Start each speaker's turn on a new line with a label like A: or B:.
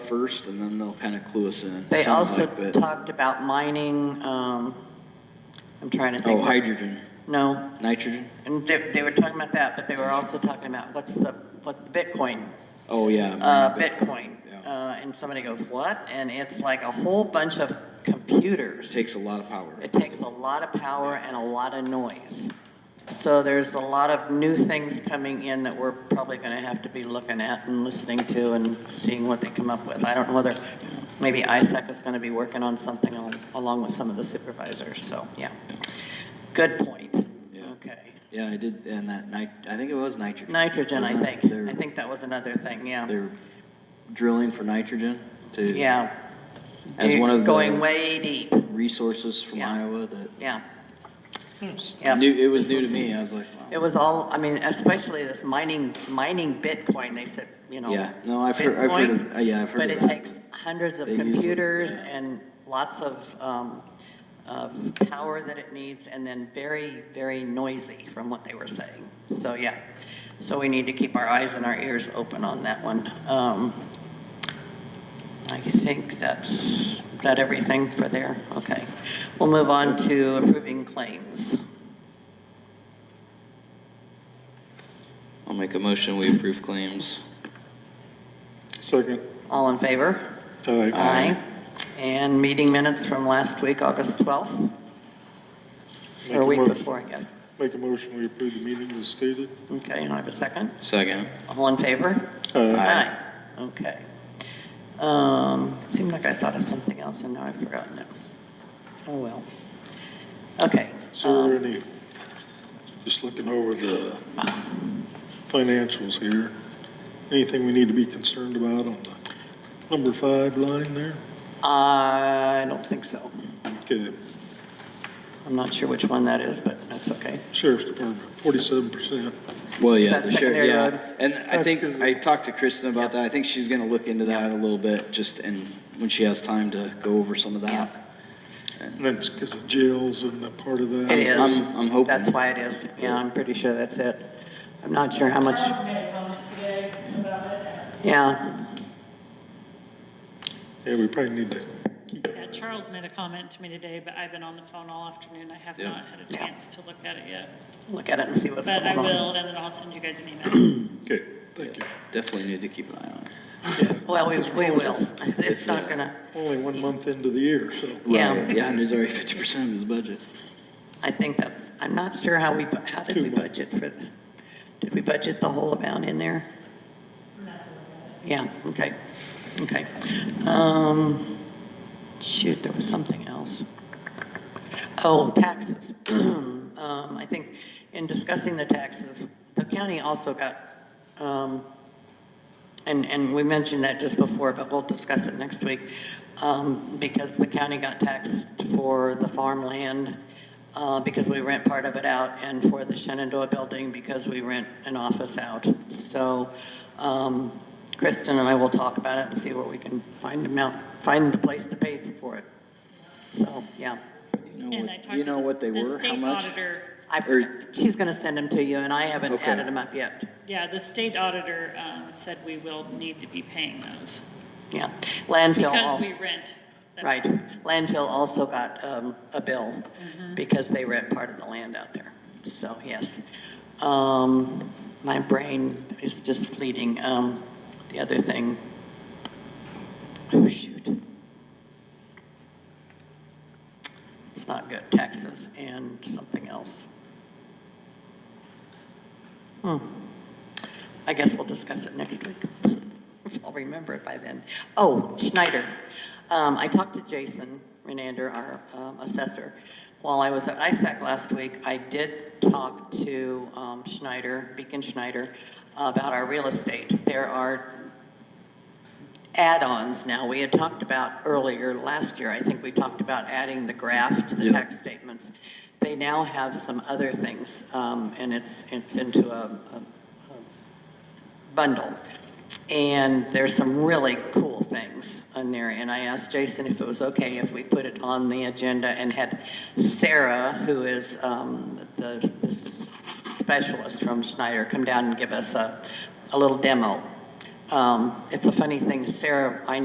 A: first, and then they'll kind of clue us in.
B: They
A: sounds
B: also
A: like, but-
B: talked about mining, um, I'm trying to think.
A: Oh, hydrogen,
B: No,
A: nitrogen?
B: and they, they were talking about that, but they were also talking about what's the, what's the Bitcoin,
A: Oh, yeah.
B: uh,
A: maybe.
B: Bitcoin?
A: Yeah.
B: Uh, and somebody goes, what? And it's like a whole bunch of computers.
A: Takes a lot of power.
B: It takes a lot of power and a lot of noise. So there's a lot of new things coming in that we're probably going to have to be looking at and listening to and seeing what they come up with. I don't know whether, maybe ISAC is going to be working on something al- along with some of the supervisors, so, yeah. Good point.
A: Yeah.
B: Okay.
A: Yeah, I did, and that nit, I think it was nitrogen.
B: Nitrogen, I
A: Wasn't it?
B: think.
A: They're-
B: I think that was another thing, yeah.
A: They're drilling for nitrogen to.
B: Yeah.
A: As one of
B: Going
A: the
B: way deep,
A: resources from
B: Yeah.
A: Iowa that
B: yeah. Yeah.
A: was new, it was new to me. I was like, wow.
B: It was all, I mean, especially this mining, mining Bitcoin, they said, you know.
A: Yeah, no, I've heard- I've heard of-
B: Bitcoin,
A: uh, yeah, I've heard
B: But
A: of
B: it
A: that.
B: takes hundreds of
A: They use it,
B: computers
A: yeah.
B: and lots of, um, of power that it needs, and then very, very noisy from what they were saying. So, yeah, so we need to keep our eyes and our ears open on that one. Um, I think that's, is that everything for there? Okay. We'll move on to approving claims.
C: I'll make a motion, we approve claims.
D: Second.
B: All in favor?
D: Aye.
B: Aye. And meeting minutes from last week, August 12th,
D: Make
B: or
D: a
B: week
D: mo-
B: before, I guess.
D: Make a motion, we approve the meeting as stated.
B: Okay, and I have a second.
C: Second.
B: All in favor?
D: Uh,
B: Aye. Okay. Um, Seemed like I thought of something else, and now I've forgotten it. Oh, well. Okay.
D: So are any, just looking over the financials here, anything we need to be concerned about on the number five line there?
B: I don't think so.
D: Okay,
B: I'm not sure which one that is, but that's okay.
D: Sheriff's Department, forty-seven percent.
A: Well, yeah,
B: that
A: the sheriff,
B: secondary road?
A: yeah. And I
D: That's
A: think,
D: good.
A: I talked to Kristen about that. I think she's gonna look into that a little bit, just, and when she has time to go over some of
B: Yeah.
A: that.
D: And that's because the jails and the part of that.
B: It is.
A: I'm- I'm hoping.
B: That's why it is. Yeah, I'm pretty sure that's it. I'm not sure how much.
E: Charles made a comment today about it.
B: Yeah,
D: Yeah, we probably need to,
E: Yeah, Charles made a comment to me today, but I've been on the phone all afternoon. I have
A: Yeah.
E: not had a
B: Yeah.
E: chance to look at it yet.
B: look at it and see what's
E: But
B: going
E: I
B: on.
E: will, and then I'll send you guys an email.
D: okay, thank you.
A: Definitely need to keep an eye on it.
B: Well, we, we will. It's not gonna,
D: Only one month into the year, so.
B: yeah,
A: Right, Yeah, and there's already fifty percent of his budget.
B: I think that's, I'm not sure how we, bu- how did we budget for, the- did we budget the whole amount in there? Yeah, okay, okay. Um, shoot, there was something else. Oh, taxes. Um, I think in discussing the taxes, the county also got, um, And, and we mentioned that just before, but we'll discuss it next week, um, because the county got taxed for the farmland, uh, because we rent part of it out, and for the Shenandoah building, because we rent an office out. So, um, Kristen and I will talk about it and see where we can find them out, find the place to pay for it. So, yeah.
A: You know
E: And I
A: what,
E: talked
A: you
E: to
A: know
E: the
A: what they
E: the
A: were, how
E: state
A: much?
E: auditor.
B: I,
A: Or-
B: she's gonna send them to you, and I haven't
A: Okay.
B: added them up yet.
E: Yeah, the state auditor um, said we will need to be paying those
B: Yeah. Landfill also.
E: because we rent. them.
B: Right. Landfill also got um, a bill because they rent part of the land out there. So, yes. Um, My brain is just fleeting. Um, The other thing, oh, shoot. It's not good, taxes and something else. Hmm. I guess we'll discuss it next week. If I'll remember it by then. Oh, Schneider. Um, I talked to Jason Renander, our um, assessor. While I was at ISAC last week, I did talk to um, Schneider, Beacon Schneider, about our real estate. There are add-ons now. We had talked about earlier last year, I think we talked about adding the graph to the
A: Yeah.
B: tax statements. They now have some other things, um, and it's, it's into a, a bundle. And there's some really cool things on there. And I asked Jason if it was okay if we put it on the agenda and had Sarah, who is um, the, the specialist from Schneider, come down and give us a, a little demo. Um, it's a funny thing. Sarah, I